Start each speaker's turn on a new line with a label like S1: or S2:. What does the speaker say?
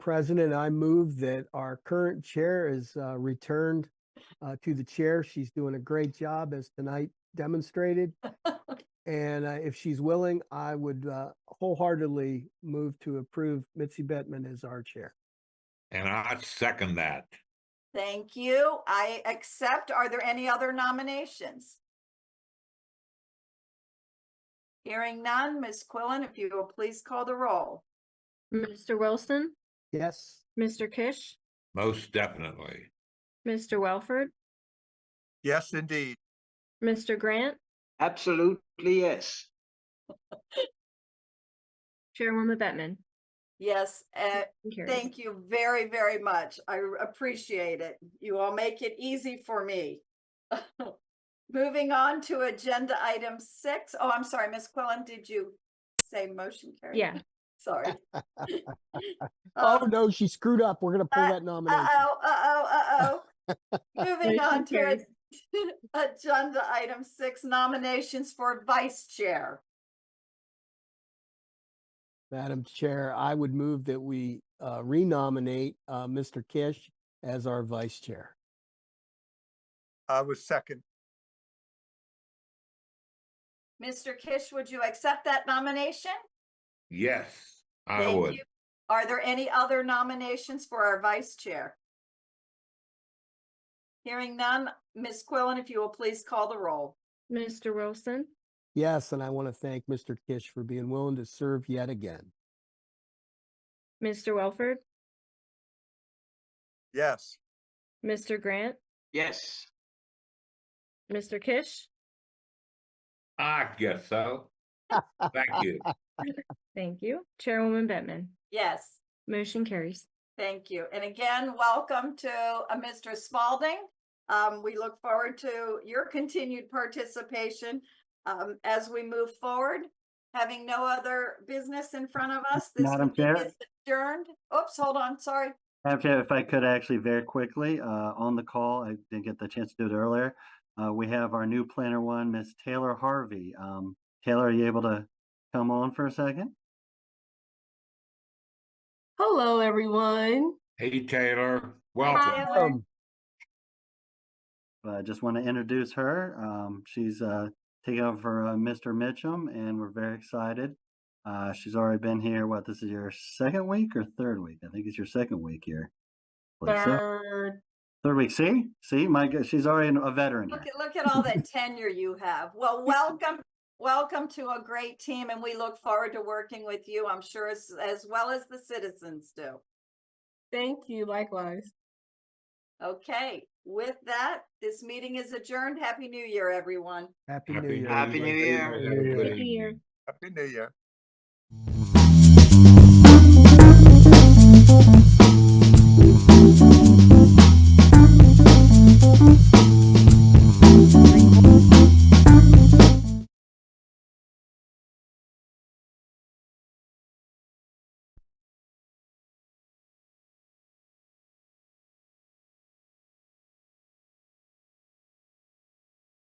S1: President, I move that our current chair is uh, returned uh, to the chair. She's doing a great job as tonight demonstrated. And uh, if she's willing, I would uh, wholeheartedly move to approve Mitzi Bettman as our chair.
S2: And I second that.
S3: Thank you. I accept. Are there any other nominations? Hearing none, Ms. Quillan, if you will please call the roll.
S4: Mr. Wilson,
S1: Yes?
S4: Mr. Kish,
S2: Most definitely.
S4: Mr. Welford,
S5: Yes, indeed.
S4: Mr. Grant,
S6: Absolutely, yes.
S4: Chairwoman Bettman.
S3: Yes, uh,
S4: Motion carries.
S3: thank you very, very much. I r- appreciate it. You all make it easy for me. Moving on to agenda item six. Oh, I'm sorry, Ms. Quillan, did you say motion carried?
S4: Yeah,
S3: Sorry.
S1: Oh,
S3: Um,
S1: no, she screwed up. We're going to pull
S3: uh,
S1: that nomination.
S3: Uh-oh, uh-oh, uh-oh. Moving on
S4: motion
S3: to a-
S4: carries.
S3: agenda item six, nominations for vice chair.
S1: Madam Chair, I would move that we uh, renominate uh, Mr. Kish as our vice chair.
S5: I was second.
S3: Mr. Kish, would you accept that nomination?
S2: Yes, I
S3: Thank
S2: would.
S3: you. Are there any other nominations for our vice chair? Hearing none, Ms. Quillan, if you will please call the roll.
S4: Mr. Wilson,
S1: Yes, and I want to thank Mr. Kish for being willing to serve yet again.
S4: Mr. Welford,
S5: Yes,
S4: Mr. Grant,
S6: Yes,
S4: Mr. Kish.
S2: I guess so. Thank you.
S4: Thank you. Chairwoman Bettman.
S3: Yes,
S4: Motion carries.
S3: thank you. And again, welcome to uh, Mr. Spalding. Um, we look forward to your continued participation um, as we move forward. Having no other business in front of us, this
S7: Madam
S3: meeting
S7: Chair?
S3: is adjourned. Oops, hold on, sorry.
S7: Madam Chair, if I could actually very quickly, uh, on the call, I didn't get the chance to do it earlier. Uh, we have our new planner one, Miss Taylor Harvey. Um, Taylor, are you able to come on for a second?
S8: Hello, everyone.
S2: Hey, Taylor, welcome.
S3: Taylor.
S1: Um,
S7: Uh, just want to introduce her. Um, she's, uh, taking over for, uh, Mr. Mitchum and we're very excited. Uh, she's already been here, what, this is your second week or third week? I think it's your second week here. Believe so.
S8: Third,
S7: Third week, see? See, my, g- she's already a veteran here.
S3: Look at, look at all that tenure you have. Well, welcome, welcome to a great team and we look forward to working with you, I'm sure, as, as well as the citizens do.
S8: thank you. Likewise.
S3: Okay, with that, this meeting is adjourned. Happy New Year, everyone.
S1: Happy New Year.
S6: Happy New
S1: everybody.
S6: Year.
S2: Good
S4: Happy New Year.
S2: evening.
S5: Happy New Year.